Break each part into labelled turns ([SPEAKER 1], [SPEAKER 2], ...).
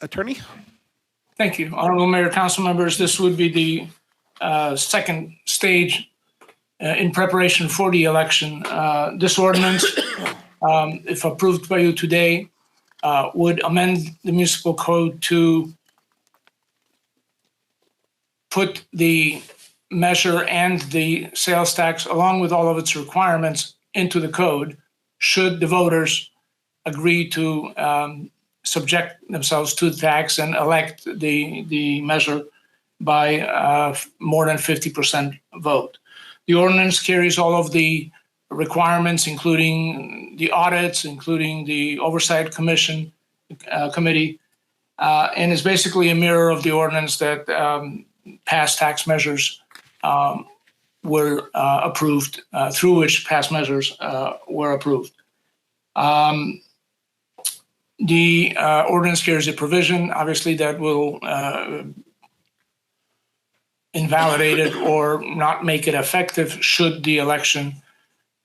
[SPEAKER 1] Attorney?
[SPEAKER 2] Thank you. Honorable Mayor, council members, this would be the uh, second stage uh, in preparation for the election. Uh, This ordinance, um, if approved by you today, uh, would amend the municipal code to put the measure and the sales tax, along with all of its requirements, into the code should the voters agree to um, subject themselves to tax and elect the the measure by uh, f- more than 50% vote. The ordinance carries all of the requirements, including the audits, including the oversight commission uh, committee, uh, and is basically a mirror of the ordinance that um, past tax measures um, were uh, approved, uh, through which past measures uh, were approved. Um, the uh, ordinance carries a provision, obviously, that will uh, invalidate it or not make it effective should the election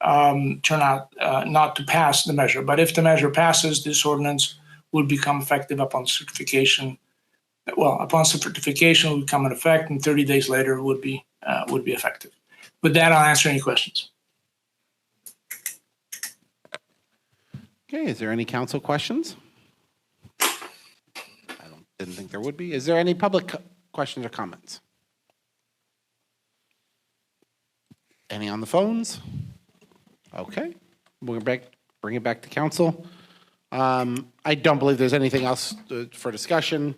[SPEAKER 2] um, turn out uh, not to pass the measure. But if the measure passes, this ordinance would become effective upon certification. Well, upon certification, it would come in effect, and 30 days later would be uh, would be effective. With that, I'll answer any questions.
[SPEAKER 1] Okay, is there any council questions? I don't, didn't think there would be. Is there any public co- questions or comments? Any on the phones? Okay, we'll bring, bring it back to council. Um, I don't believe there's anything else uh, for discussion.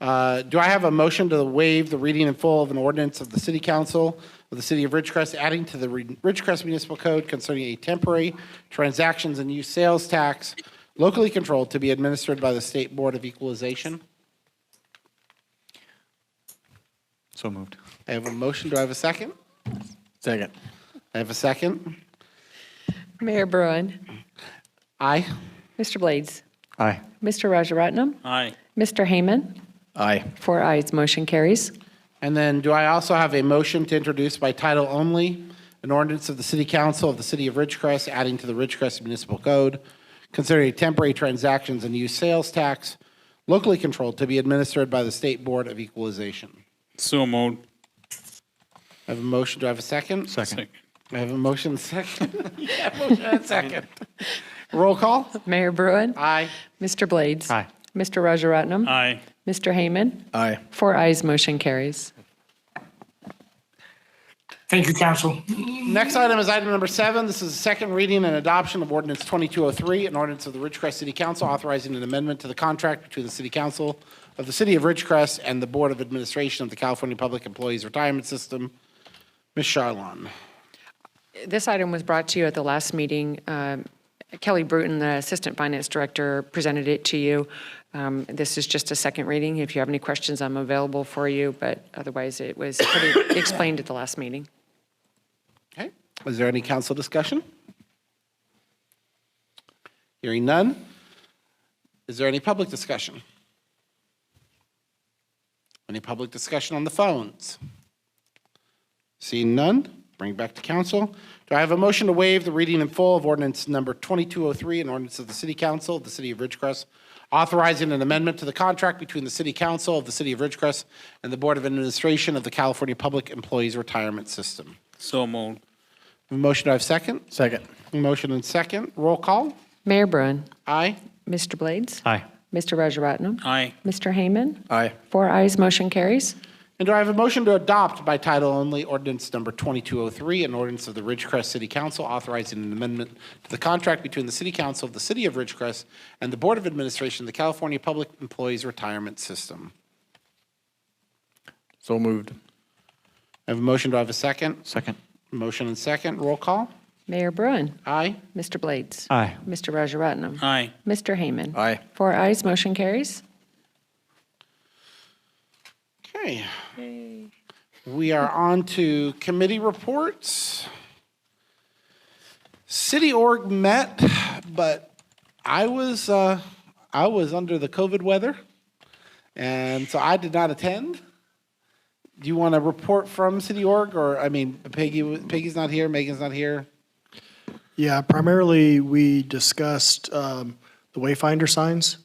[SPEAKER 1] Uh, do I have a motion to waive the reading in full of an ordinance of the City Council of the City of Ridgecrest adding to the Rid- Ridgecrest Municipal Code concerning a temporary transactions and use sales tax locally controlled to be administered by the State Board of Equalization?
[SPEAKER 3] So moved.
[SPEAKER 1] I have a motion. Do I have a second?
[SPEAKER 3] Second.
[SPEAKER 1] I have a second.
[SPEAKER 4] Mayor Bruin,
[SPEAKER 1] Aye.
[SPEAKER 4] Mr. Blades,
[SPEAKER 3] Aye.
[SPEAKER 4] Mr. Rajaratnam,
[SPEAKER 3] Aye.
[SPEAKER 4] Mr. Heyman,
[SPEAKER 3] Aye.
[SPEAKER 4] four ayes, motion carries.
[SPEAKER 1] And then do I also have a motion to introduce by title only an ordinance of the City Council of the City of Ridgecrest adding to the Ridgecrest Municipal Code considering a temporary transactions and use sales tax locally controlled to be administered by the State Board of Equalization?
[SPEAKER 5] So moved.
[SPEAKER 1] I have a motion. Do I have a second?
[SPEAKER 3] Second.
[SPEAKER 1] I have a motion second. Yeah, motion and second. Roll call?
[SPEAKER 4] Mayor Bruin,
[SPEAKER 1] Aye.
[SPEAKER 4] Mr. Blades.
[SPEAKER 3] Aye.
[SPEAKER 4] Mr. Rajaratnam.
[SPEAKER 5] Aye.
[SPEAKER 4] Mr. Heyman,
[SPEAKER 3] Aye.
[SPEAKER 4] four ayes, motion carries.
[SPEAKER 2] Thank you, council.
[SPEAKER 1] Next item is item number seven. This is the second reading and adoption of ordinance 2203, an ordinance of the Ridgecrest City Council authorizing an amendment to the contract between the City Council of the City of Ridgecrest and the Board of Administration of the California Public Employees Retirement System. Ms. Charlon.
[SPEAKER 4] This item was brought to you at the last meeting. Um, Kelly Bruton, the Assistant Finance Director, presented it to you. Um, This is just a second reading. If you have any questions, I'm available for you, but otherwise, it was pretty explained at the last meeting.
[SPEAKER 1] Okay. Is there any council discussion? Hearing none. Is there any public discussion? Any public discussion on the phones? Seeing none, bring it back to council. Do I have a motion to waive the reading in full of ordinance number 2203, an ordinance of the City Council of the City of Ridgecrest, authorizing an amendment to the contract between the City Council of the City of Ridgecrest and the Board of Administration of the California Public Employees Retirement System?
[SPEAKER 5] So moved.
[SPEAKER 1] A Motion, do I have second?
[SPEAKER 3] Second.
[SPEAKER 1] Motion and second. Roll call.
[SPEAKER 4] Mayor Bruin,
[SPEAKER 1] Aye.
[SPEAKER 4] Mr. Blades.
[SPEAKER 3] Aye.
[SPEAKER 4] Mr. Rajaratnam.
[SPEAKER 5] Aye.
[SPEAKER 4] Mr. Heyman?
[SPEAKER 3] Aye.
[SPEAKER 4] Four ayes, motion carries.
[SPEAKER 1] And do I have a motion to adopt by title only ordinance number 2203, an ordinance of the Ridgecrest City Council authorizing an amendment to the contract between the City Council of the City of Ridgecrest and the Board of Administration of the California Public Employees Retirement System?
[SPEAKER 3] So moved.
[SPEAKER 1] I have a motion. Do I have a second?
[SPEAKER 3] Second.
[SPEAKER 1] Motion and second. Roll call.
[SPEAKER 4] Mayor Bruin?
[SPEAKER 1] Aye.
[SPEAKER 4] Mr. Blades?
[SPEAKER 3] Aye.
[SPEAKER 4] Mr. Rajaratnam?
[SPEAKER 5] Aye.
[SPEAKER 4] Mr. Heyman?
[SPEAKER 3] Aye.
[SPEAKER 4] Four ayes, motion carries.
[SPEAKER 1] Okay. We are on to committee reports. City org met, but I was, uh, I was under the COVID weather, and so I did not attend. Do you want to report from city org, or, I mean, Peggy, Peggy's not here, Megan's not here?
[SPEAKER 6] Yeah, primarily, we discussed um, the wayfinder signs